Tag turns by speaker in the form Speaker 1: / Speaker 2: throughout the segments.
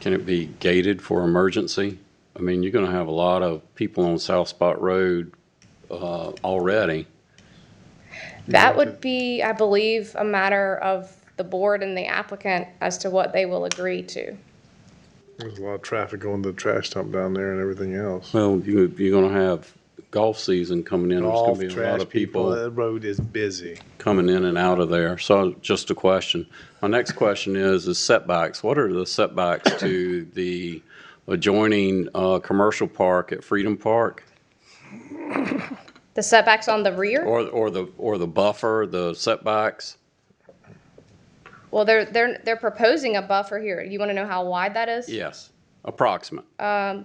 Speaker 1: Can it be gated for emergency? I mean, you're gonna have a lot of people on South Spot Road, uh, already.
Speaker 2: That would be, I believe, a matter of the board and the applicant as to what they will agree to.
Speaker 3: There's a lot of traffic going to the trash dump down there and everything else.
Speaker 1: Well, you, you're gonna have golf season coming in, there's gonna
Speaker 3: All
Speaker 1: be a
Speaker 3: trash
Speaker 1: lot of people
Speaker 3: That road is busy.
Speaker 1: coming in and out of there. So just a question. My next question is, is setbacks. What are the setbacks to the adjoining, uh, commercial park at Freedom Park?
Speaker 2: The setbacks on the rear,
Speaker 1: Or, or the, or the buffer, the setbacks?
Speaker 2: well, they're, they're, they're proposing a buffer here. You want to know how wide that is?
Speaker 1: Yes, approximate.
Speaker 3: Flood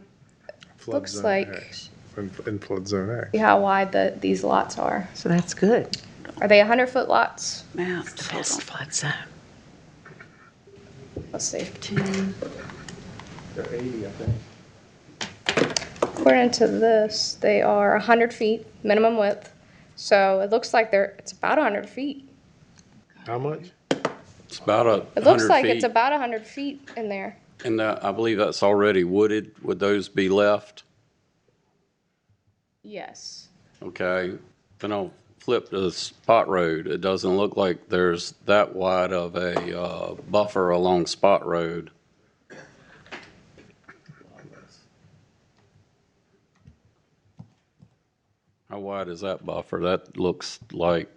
Speaker 2: Looks
Speaker 3: zone
Speaker 2: like,
Speaker 3: X And, and flood zone X.
Speaker 2: see how wide the, these lots are.
Speaker 4: So that's good.
Speaker 2: Are they 100-foot lots?
Speaker 5: Map.
Speaker 4: Best flood zone.
Speaker 2: Let's see.
Speaker 6: They're 80, I think.
Speaker 2: According to this, they are 100 feet minimum width, so it looks like they're, it's about 100 feet.
Speaker 3: How much?
Speaker 1: It's about a
Speaker 2: It looks
Speaker 1: hundred
Speaker 2: like it's
Speaker 1: feet.
Speaker 2: about 100 feet in there.
Speaker 1: And that, I believe that's already wooded. Would those be left?
Speaker 2: Yes.
Speaker 1: Okay. Then I'll flip to the Spot Road. It doesn't look like there's that wide of a, uh, buffer along Spot Road. How wide is that buffer? That looks like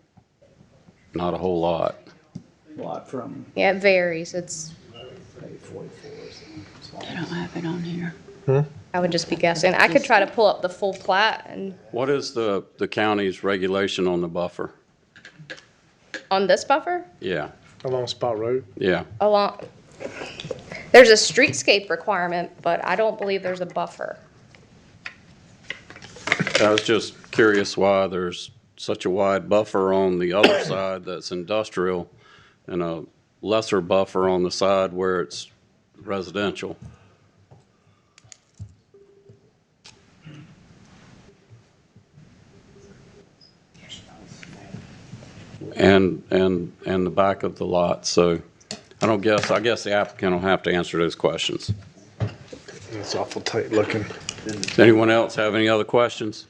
Speaker 1: not a whole lot.
Speaker 6: Lot from,
Speaker 2: Yeah, it varies. It's,
Speaker 6: say, 44 or something. It's
Speaker 5: I
Speaker 6: like-
Speaker 5: don't have it on here.
Speaker 2: I would just be guessing. I could try to pull up the full plat and,
Speaker 1: What is the, the county's regulation on the buffer?
Speaker 2: on this buffer,
Speaker 1: Yeah,
Speaker 3: Along Spot Road?
Speaker 1: yeah.
Speaker 2: along, there's a streetscape requirement, but I don't believe there's a buffer.
Speaker 1: I was just curious why there's such a wide buffer on the other side that's industrial and a lesser buffer on the side where it's residential. And, and, and the back of the lot, so I don't guess, I guess the applicant will have to answer those questions.
Speaker 3: It's awful tight looking.
Speaker 1: Does anyone else have any other questions?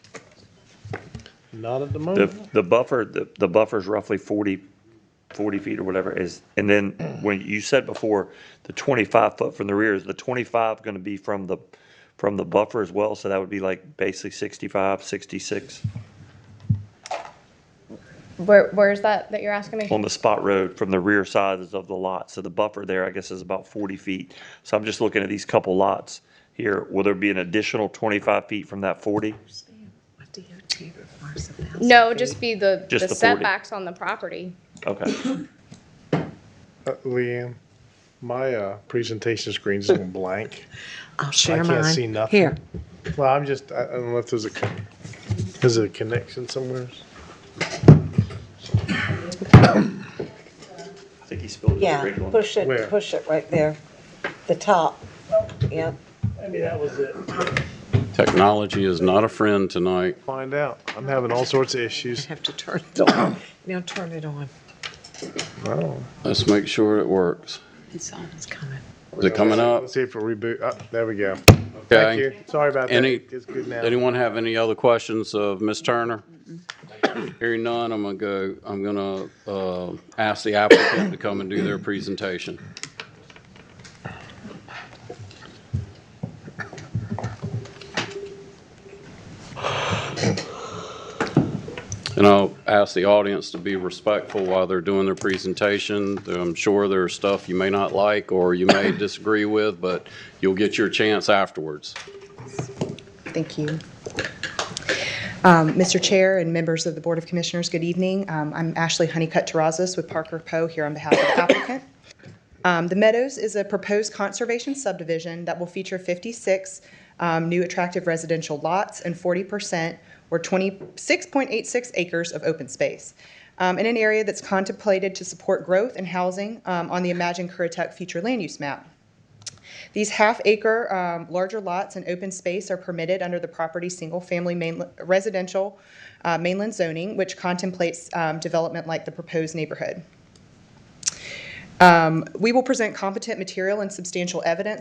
Speaker 3: Not at the
Speaker 7: The,
Speaker 3: moment.
Speaker 7: the buffer, the, the buffer's roughly 40, 40 feet or whatever is, and then when you said before, the 25 foot from the rear, is the 25 going to be from the, from the buffer as well? So that would be like basically 65, 66
Speaker 2: Where, where is that, that you're asking me?
Speaker 7: on the spot road from the rear sides of the lot. So the buffer there, I guess, is about 40 feet. So I'm just looking at these couple lots here. Will there be an additional 25 feet from that 40?
Speaker 4: What DOT requires a thousand
Speaker 2: No, it'd just be the,
Speaker 7: Just
Speaker 2: the
Speaker 7: the 40.
Speaker 2: setbacks on the property.
Speaker 7: Okay.
Speaker 3: Uh, Leanne, my, uh, presentation screen's going blank.
Speaker 4: I'll share
Speaker 3: can't
Speaker 4: mine.
Speaker 3: see nothing.
Speaker 4: Here,
Speaker 3: Well, I'm just, I, I don't know if there's a, con- is there a connection somewhere?
Speaker 7: I think he spilled his
Speaker 8: Yeah,
Speaker 7: original.
Speaker 8: push
Speaker 3: Where?
Speaker 8: it, push it right there, the top. Yep,
Speaker 6: Maybe that was it.
Speaker 1: Technology is not a friend tonight.
Speaker 3: Find out. I'm having all sorts of
Speaker 4: I
Speaker 3: issues.
Speaker 4: have to turn it on. Now turn it on.
Speaker 3: Oh.
Speaker 1: Let's make sure it works.
Speaker 5: It's on.
Speaker 4: It's coming.
Speaker 1: Is it coming up?
Speaker 3: Let's see if it reboot. Ah, there we go. Thank you.
Speaker 1: Okay.
Speaker 3: Sorry about that.
Speaker 1: Any-
Speaker 3: It's good now.
Speaker 1: Anyone have any other questions of Ms. Turner? Hearing none, I'm gonna go, I'm gonna, uh, ask the applicant to come and do their presentation. And I'll ask the audience to be respectful while they're doing their presentation. I'm sure there's stuff you may not like or you may disagree with, but you'll get your chance afterwards.
Speaker 9: Thank you. Um, Mr. Chair and members of the Board of Commissioners, good evening. Um, I'm Ashley Honeycutt Terrazas with Parker Poe here on behalf of the applicant. Um, The Meadows is a proposed conservation subdivision that will feature 56 um, new attractive residential lots and 40% or 26.86 acres of open space um, in an area that's contemplated to support growth and housing um, on the Imagine Currituck future land use map. These half-acre, um, larger lots and open space are permitted under the property's single-family mainl- residential uh, mainland zoning, which contemplates um, development like the proposed neighborhood. Um, We will present competent material and substantial evidence